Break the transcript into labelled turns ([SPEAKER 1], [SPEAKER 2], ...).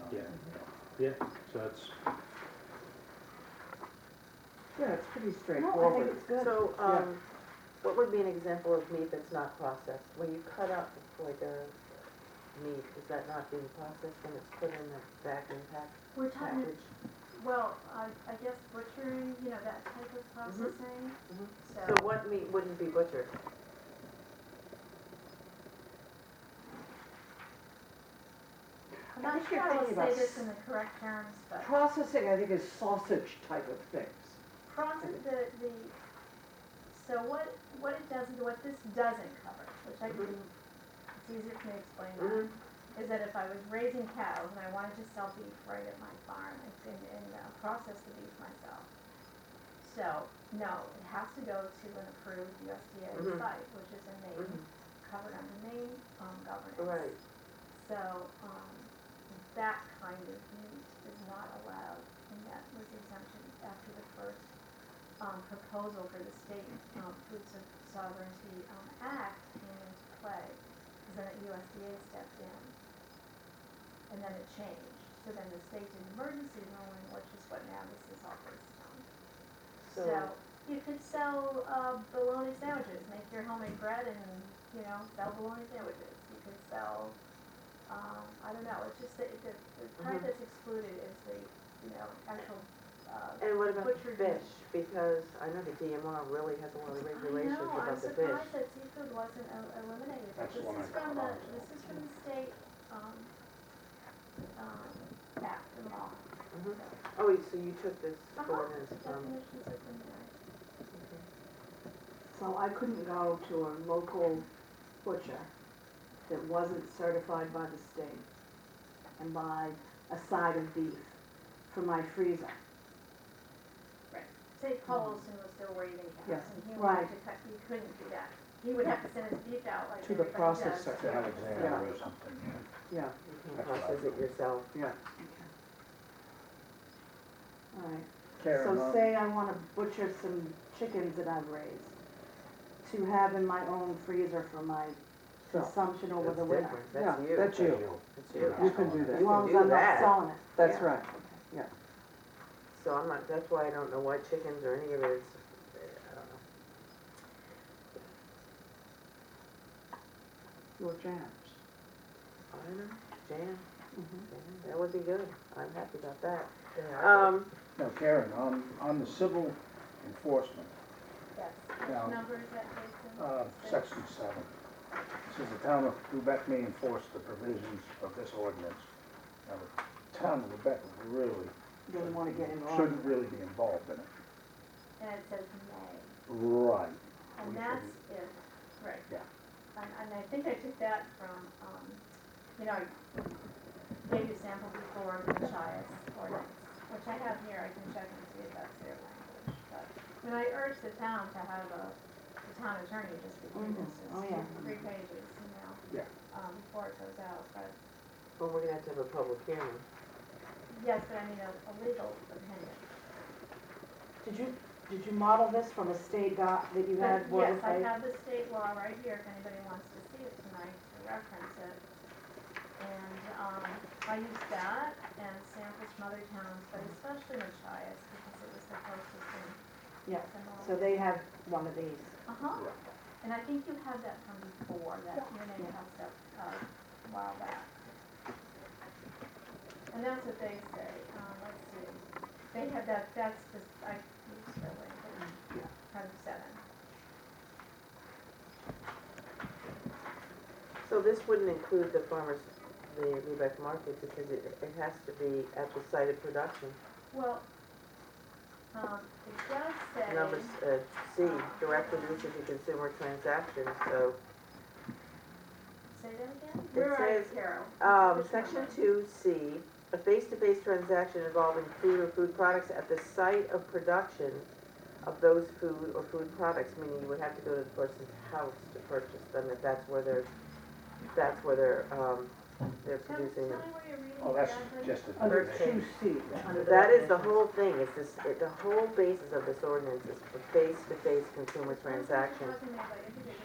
[SPEAKER 1] Mm-hmm.
[SPEAKER 2] Yeah, so that's,
[SPEAKER 3] Yeah, it's pretty
[SPEAKER 1] No, I think
[SPEAKER 3] straightforward.
[SPEAKER 1] it's good.
[SPEAKER 4] So, um, what would be an example of meat that's not processed? When you cut up like a meat, is that not being processed when it's put in the vacuum pack
[SPEAKER 5] We're talking,
[SPEAKER 4] package?
[SPEAKER 5] well, I, I guess butchery, you know, that type of processing,
[SPEAKER 4] Mhm. So
[SPEAKER 5] so,
[SPEAKER 4] what meat wouldn't be butchered?
[SPEAKER 5] I'm
[SPEAKER 3] I
[SPEAKER 5] not
[SPEAKER 3] think
[SPEAKER 5] sure
[SPEAKER 3] you're
[SPEAKER 5] how to
[SPEAKER 3] thinking
[SPEAKER 5] say
[SPEAKER 3] about
[SPEAKER 5] this
[SPEAKER 3] s-
[SPEAKER 5] in the correct terms, but
[SPEAKER 3] Processing, I think, is sausage type of things.
[SPEAKER 5] process, the, the, so what, what it does, what this doesn't cover, which I believe, it's easier for me to explain that, is that if I was raising cows and I wanted to sell beef right at my farm and, and, and uh, process the beef myself. So, no, it has to go to an approved USDA
[SPEAKER 4] Mhm.
[SPEAKER 5] site, which is in Maine,
[SPEAKER 4] Mhm.
[SPEAKER 5] covered under Maine, um, governance.
[SPEAKER 4] Right,
[SPEAKER 5] So, um, that kind of meat is not allowed, and that was exemption after the first, um, proposal for the State, um, Food Sov- Sovereignty, um, Act came into play, because then the USDA stepped in. And then it changed, so then the state did emergency ruling, which is what now this is all based on.
[SPEAKER 4] so,
[SPEAKER 5] So, you could sell, uh, bologna sandwiches, make your homemade bread and, you know, sell bologna sandwiches. You could sell, um, I don't know, it's just the, the, the part
[SPEAKER 4] Mhm.
[SPEAKER 5] that's excluded is the, you know, actual, uh,
[SPEAKER 4] and what about
[SPEAKER 5] butchered meat.
[SPEAKER 4] fish? Because I know the DMR really has a lot of regulations
[SPEAKER 5] I know, I'm
[SPEAKER 4] about the
[SPEAKER 5] surprised
[SPEAKER 4] fish.
[SPEAKER 5] that seafood wasn't el- eliminated. but
[SPEAKER 2] That's the
[SPEAKER 5] This
[SPEAKER 2] one I
[SPEAKER 5] is from
[SPEAKER 2] caught
[SPEAKER 5] the,
[SPEAKER 2] on to.
[SPEAKER 5] this is from the state, um, um, act, the law.
[SPEAKER 4] Mhm. Oh, wait, so you took this
[SPEAKER 5] Uh-huh.
[SPEAKER 4] ordinance from,
[SPEAKER 5] Definitions are from there.
[SPEAKER 1] So I couldn't go to a local butcher that wasn't certified by the state and buy a side of beef for my freezer.
[SPEAKER 5] Say Paul Olson was still raising cows,
[SPEAKER 3] Yes.
[SPEAKER 5] and he
[SPEAKER 1] Right.
[SPEAKER 5] wanted to cut, he couldn't do that. He would have to send his beef out like
[SPEAKER 3] To the
[SPEAKER 5] everybody does.
[SPEAKER 3] processor.
[SPEAKER 2] to Alexander or something, yeah.
[SPEAKER 3] Yeah,
[SPEAKER 4] you can process it yourself.
[SPEAKER 1] All right.
[SPEAKER 2] Karen,
[SPEAKER 1] So
[SPEAKER 2] um,
[SPEAKER 1] say I want to butcher some chickens that I've raised to have in my own freezer for my
[SPEAKER 3] so,
[SPEAKER 1] consumption over
[SPEAKER 4] That's
[SPEAKER 1] the winter.
[SPEAKER 4] different,
[SPEAKER 3] yeah,
[SPEAKER 4] that's you.
[SPEAKER 3] that's you.
[SPEAKER 4] That's
[SPEAKER 2] You're
[SPEAKER 4] you.
[SPEAKER 2] not
[SPEAKER 3] You can
[SPEAKER 2] selling
[SPEAKER 3] do
[SPEAKER 2] it.
[SPEAKER 1] As
[SPEAKER 3] that.
[SPEAKER 1] long
[SPEAKER 4] do
[SPEAKER 1] as I'm
[SPEAKER 4] that.
[SPEAKER 1] not selling it.
[SPEAKER 3] That's
[SPEAKER 4] Yeah.
[SPEAKER 3] right.
[SPEAKER 4] So I'm not, that's why I don't know why chickens or any of it is, I don't know.
[SPEAKER 3] Your jams.
[SPEAKER 4] I don't know, jam.
[SPEAKER 3] Mhm.
[SPEAKER 4] Yeah, That would be good. I'm happy about that.
[SPEAKER 3] are
[SPEAKER 4] Um,
[SPEAKER 2] No, Karen, on, on the civil enforcement,
[SPEAKER 5] Yes,
[SPEAKER 2] Yeah.
[SPEAKER 5] numbers that Jason.
[SPEAKER 2] uh, section seven, says the town of Lubec may enforce the provisions of this ordinance. Now, the town of Lubec really
[SPEAKER 1] Doesn't want to get involved.
[SPEAKER 2] shouldn't really be involved in it.
[SPEAKER 5] And it says may,
[SPEAKER 2] Right.
[SPEAKER 5] and
[SPEAKER 2] We
[SPEAKER 5] that's if, right.
[SPEAKER 2] Yeah.
[SPEAKER 5] And, and I think I took that from, um, you know, I gave you sample before of the Chias ordinance, which I have here, I can check and see if that's their language, but, I mean, I urge the town to have a, the town attorney just review this,
[SPEAKER 1] Mhm. Oh,
[SPEAKER 5] it's
[SPEAKER 1] yeah.
[SPEAKER 5] three pages, you know?
[SPEAKER 2] Yeah.
[SPEAKER 5] Um, before it goes out, but,
[SPEAKER 4] well, we're gonna have to have a public hearing.
[SPEAKER 5] yes, but I mean, a, a legal opinion.
[SPEAKER 1] Did you, did you model this from a state doc that you had?
[SPEAKER 5] But
[SPEAKER 1] Board
[SPEAKER 5] yes,
[SPEAKER 1] of
[SPEAKER 5] I
[SPEAKER 1] Ed?
[SPEAKER 5] have the state law right here, if anybody wants to see it tonight, to reference it. And, um, I used that and samples from other towns, but especially Machias, because it was the closest thing.
[SPEAKER 1] Yeah,
[SPEAKER 5] Similar.
[SPEAKER 1] So they have one of these.
[SPEAKER 5] Uh-huh, and I think you had that from before, that you may have stuff, uh, a while back. And that's what they say, um, let's see, they have that, that's the, I, it's the language,
[SPEAKER 2] Yeah.
[SPEAKER 5] kind of seven.
[SPEAKER 4] So this wouldn't include the farmers, the Lubec market, because it, it has to be at the site of production.
[SPEAKER 5] Well, um, it does say.
[SPEAKER 4] Number, s- uh, C, directly listed to consumer transactions, so,
[SPEAKER 5] Say that again?
[SPEAKER 4] It
[SPEAKER 5] Where are you,
[SPEAKER 4] says,
[SPEAKER 5] Carol?
[SPEAKER 4] um,
[SPEAKER 5] Which
[SPEAKER 4] section
[SPEAKER 5] number?
[SPEAKER 4] two, C, a face-to-face transaction involving food or food products at the site of production of those food or food products, meaning you would have to go to the person's house to purchase them, if that's where they're, that's where they're, um, they're
[SPEAKER 5] Tell tell me
[SPEAKER 4] producing them.
[SPEAKER 5] where you're reading.
[SPEAKER 2] Oh, that's
[SPEAKER 5] exactly.
[SPEAKER 2] just a.
[SPEAKER 3] Under
[SPEAKER 4] Bird
[SPEAKER 3] two C.
[SPEAKER 1] under
[SPEAKER 4] That is the
[SPEAKER 1] definitions.
[SPEAKER 4] whole thing, it's this, it- the whole basis of this ordinance is for face-to-face consumer
[SPEAKER 5] That's what
[SPEAKER 4] transactions.
[SPEAKER 5] you're talking about, I think it's